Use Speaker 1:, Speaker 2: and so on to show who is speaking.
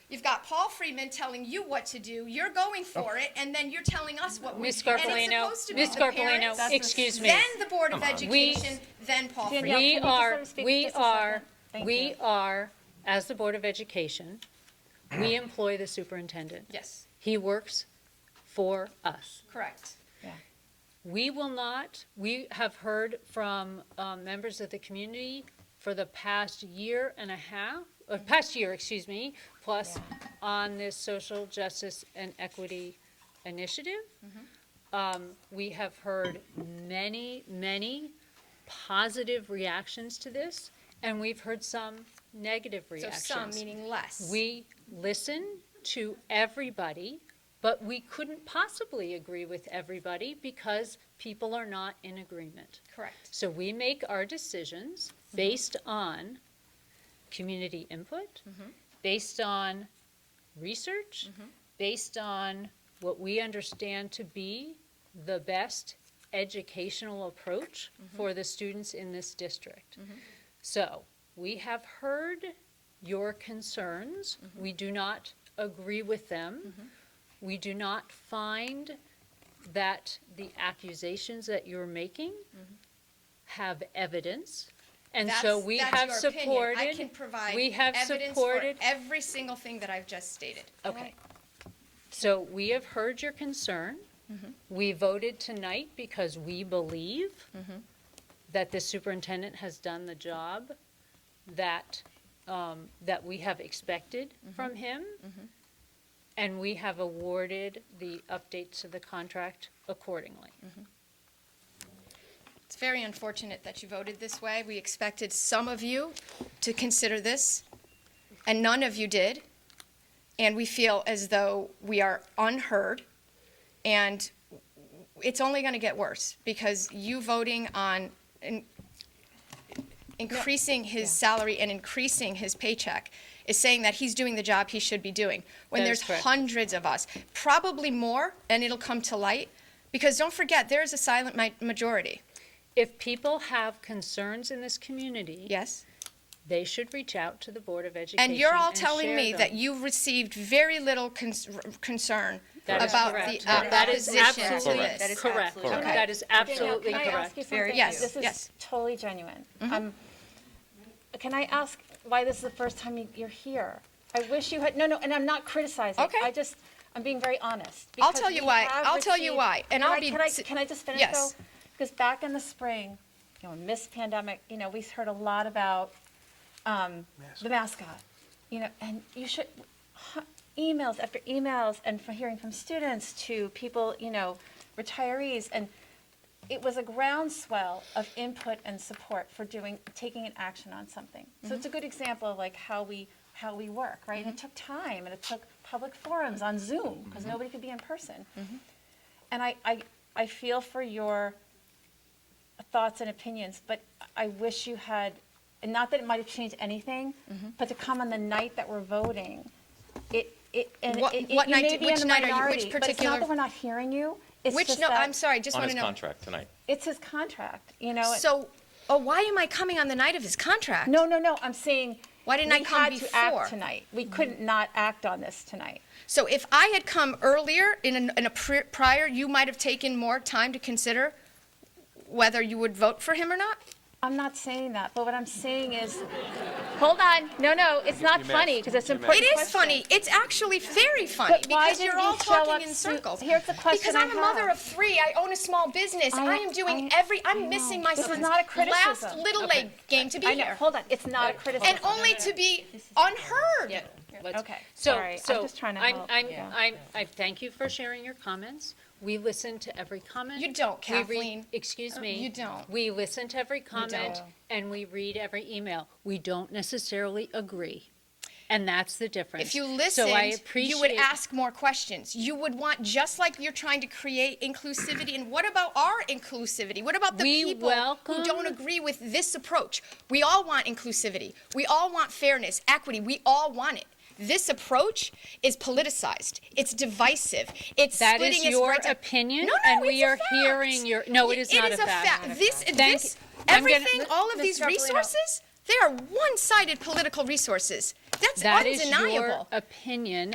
Speaker 1: You've got Paul Freeman telling you what to do. You're going for it, and then you're telling us what we.
Speaker 2: Ms.
Speaker 1: do. And it's
Speaker 2: Carpellino,
Speaker 1: supposed to be
Speaker 2: Ms.
Speaker 1: the
Speaker 2: Carpellino,
Speaker 1: parents,
Speaker 2: excuse me.
Speaker 1: Then the Board of
Speaker 2: We-
Speaker 1: Education, then Paul
Speaker 3: Danielle,
Speaker 1: Freeman.
Speaker 2: We
Speaker 3: can you just let
Speaker 2: are,
Speaker 3: him speak
Speaker 2: we
Speaker 3: just a
Speaker 2: are,
Speaker 3: second? Thank
Speaker 2: we
Speaker 3: you.
Speaker 2: are, as the Board of Education, we employ the superintendent.
Speaker 1: Yes,
Speaker 2: He works for us.
Speaker 1: correct.
Speaker 2: We will not, we have heard from um, members of the community for the past year and a half, or past year, excuse me, plus on this social justice and equity initiative.
Speaker 1: Mm-hmm.
Speaker 2: Um, We have heard many, many positive reactions to this, and we've heard some negative
Speaker 1: So
Speaker 2: reactions.
Speaker 1: some, meaning less.
Speaker 2: We listen to everybody, but we couldn't possibly agree with everybody because people are not in agreement.
Speaker 1: Correct.
Speaker 2: So we make our decisions based on community input, based on research, based on what we understand to be the best educational approach for the students in this district. So we have heard your concerns.
Speaker 1: Mm-hmm.
Speaker 2: We do not agree with them. We do not find that the accusations that you're making have evidence. And so
Speaker 1: Mm-hmm. That's-
Speaker 2: we
Speaker 1: that's
Speaker 2: have
Speaker 1: your opinion.
Speaker 2: supported.
Speaker 1: I can provide
Speaker 2: we have
Speaker 1: evidence for
Speaker 2: supported-
Speaker 1: every single thing that I've just stated.
Speaker 2: Okay. So we have heard your concern.
Speaker 1: Mm-hmm.
Speaker 2: We voted tonight because we believe
Speaker 1: Mm-hmm.
Speaker 2: that the superintendent has done the job that, um, that we have expected
Speaker 1: Mm-hmm.
Speaker 2: from him. And we have awarded the updates to the contract accordingly.
Speaker 1: Mm-hmm. It's very unfortunate that you voted this way. We expected some of you to consider this, and none of you did. And we feel as though we are unheard, and it's only going to get worse because you voting on in- increasing his salary and increasing his paycheck is saying that he's doing the job he should be doing when
Speaker 2: That
Speaker 1: there's
Speaker 2: is correct.
Speaker 1: hundreds of us, probably more, and it'll come to light. Because don't forget, there is a silent mi- majority.
Speaker 2: If people have concerns in this community,
Speaker 1: Yes?
Speaker 2: they should reach out to the Board of Education
Speaker 1: And you're all telling
Speaker 2: share
Speaker 1: me
Speaker 2: them.
Speaker 1: that you've received very little cons- r- concern
Speaker 2: That is
Speaker 1: about the
Speaker 2: correct.
Speaker 1: uh,
Speaker 2: That is
Speaker 1: opposition to
Speaker 2: absolutely
Speaker 1: this.
Speaker 4: That is
Speaker 2: Correct.
Speaker 4: absolutely
Speaker 1: Okay.
Speaker 2: That is absolutely
Speaker 3: Danielle, can I ask
Speaker 2: correct.
Speaker 3: you something?
Speaker 1: Yes,
Speaker 3: This
Speaker 1: yes. Mm-hmm.
Speaker 3: is totally genuine. Um, Can I ask why this is the first time you- you're here? I wish you had, no, no, and I'm not criticizing.
Speaker 1: Okay.
Speaker 3: I just, I'm being very honest.
Speaker 1: I'll
Speaker 3: because
Speaker 1: tell you
Speaker 3: we
Speaker 1: why.
Speaker 3: have
Speaker 1: I'll tell you
Speaker 3: received-
Speaker 1: why, and
Speaker 3: Can
Speaker 1: I'll
Speaker 3: I-
Speaker 1: be
Speaker 3: Can I,
Speaker 1: si-
Speaker 3: can I just finish
Speaker 1: Yes.
Speaker 3: though? Because back in the spring, you know, amidst pandemic, you know, we heard a lot about um, the mascot. You know, and you should, hu- emails after emails and from hearing from students to people, you know, retirees and it was a groundswell of input and support for doing taking an action on something. So
Speaker 1: Mm-hmm.
Speaker 3: it's a good example of like how we how we work, right? And it took time and it took public forums on Zoom because
Speaker 1: Mm-hmm.
Speaker 3: nobody could be in person. And I, I I feel for your thoughts and opinions, but I wish you had and not that it might have changed anything,
Speaker 1: Mm-hmm.
Speaker 3: but to come on the night that we're voting, it it and
Speaker 1: What-
Speaker 3: it, it-
Speaker 1: what
Speaker 3: you
Speaker 1: night-
Speaker 3: may be
Speaker 1: which
Speaker 3: in the
Speaker 1: night are you- which
Speaker 3: minority, but it's
Speaker 1: particular-
Speaker 3: not that we're not hearing you. It's
Speaker 1: Which,
Speaker 3: just
Speaker 1: no,
Speaker 3: that
Speaker 1: I'm sorry, just
Speaker 4: on
Speaker 1: want
Speaker 4: his
Speaker 1: to know.
Speaker 4: contract tonight.
Speaker 3: It's his contract, you know. it-
Speaker 1: So, oh, why am I coming on the night of his contract?
Speaker 3: No, no, no, I'm saying.
Speaker 1: Why didn't I
Speaker 3: we
Speaker 1: come
Speaker 3: had to act
Speaker 1: before?
Speaker 3: Tonight, we couldn't not act on this tonight.
Speaker 1: So if I had come earlier in, an, in a pri- prior, you might have taken more time to consider whether you would vote for him or not?
Speaker 3: I'm not saying that, but what I'm saying is, hold on, no, no, it's not funny, because it's an
Speaker 1: It
Speaker 3: important
Speaker 1: is
Speaker 3: question.
Speaker 1: funny. It's actually very funny
Speaker 3: But why
Speaker 1: because you're
Speaker 3: didn't
Speaker 1: all
Speaker 3: you show
Speaker 1: talking
Speaker 3: up
Speaker 1: in
Speaker 3: to-
Speaker 1: circles.
Speaker 3: Here's the question
Speaker 1: Because
Speaker 3: I
Speaker 1: I'm a mother
Speaker 3: have.
Speaker 1: of three. I own a small business. I,
Speaker 3: I-
Speaker 1: am doing
Speaker 3: I-
Speaker 1: every.
Speaker 3: I
Speaker 1: I'm
Speaker 3: know.
Speaker 1: missing my
Speaker 3: This is
Speaker 1: son's
Speaker 3: not a criticism.
Speaker 1: last little leg game to be
Speaker 3: I know,
Speaker 1: here,
Speaker 3: hold on, it's not a criticism.
Speaker 1: and only to be unheard.
Speaker 2: Yeah, let's-
Speaker 3: Okay,
Speaker 2: So-
Speaker 3: sorry, I'm
Speaker 2: so
Speaker 3: just trying to
Speaker 2: I'm-
Speaker 3: help,
Speaker 2: I'm,
Speaker 3: yeah.
Speaker 2: I'm, I thank you for sharing your comments. We listen to every comment.
Speaker 1: You don't,
Speaker 2: We read-
Speaker 1: Kathleen.
Speaker 2: Excuse me.
Speaker 1: You don't.
Speaker 2: We listen to every comment
Speaker 3: don't.
Speaker 2: and we read every email. We don't necessarily agree. And that's the difference.
Speaker 1: If you
Speaker 2: So I
Speaker 1: listened, you would
Speaker 2: appreciate-
Speaker 1: ask more questions. You would want, just like you're trying to create inclusivity. And what about our inclusivity? What about the
Speaker 2: We
Speaker 1: people who don't
Speaker 2: welcome-
Speaker 1: agree with this approach? We all want inclusivity. We all want fairness, equity. We all want it. This approach is politicized. It's divisive. It's
Speaker 2: That is
Speaker 1: splitting us
Speaker 2: your
Speaker 1: right down-
Speaker 2: opinion,
Speaker 1: No, no,
Speaker 2: and
Speaker 1: it's
Speaker 2: we
Speaker 1: a
Speaker 2: are
Speaker 1: fact.
Speaker 2: hearing your- no, it is not a
Speaker 1: It is
Speaker 2: fact. Not a
Speaker 1: This,
Speaker 2: Thank
Speaker 1: this,
Speaker 2: you. I'm gonna-
Speaker 1: everything, all of
Speaker 3: Ms.
Speaker 1: these
Speaker 3: Garofalino.
Speaker 1: resources. They are one sided political resources. That's
Speaker 2: That is your
Speaker 1: undeniable.
Speaker 2: opinion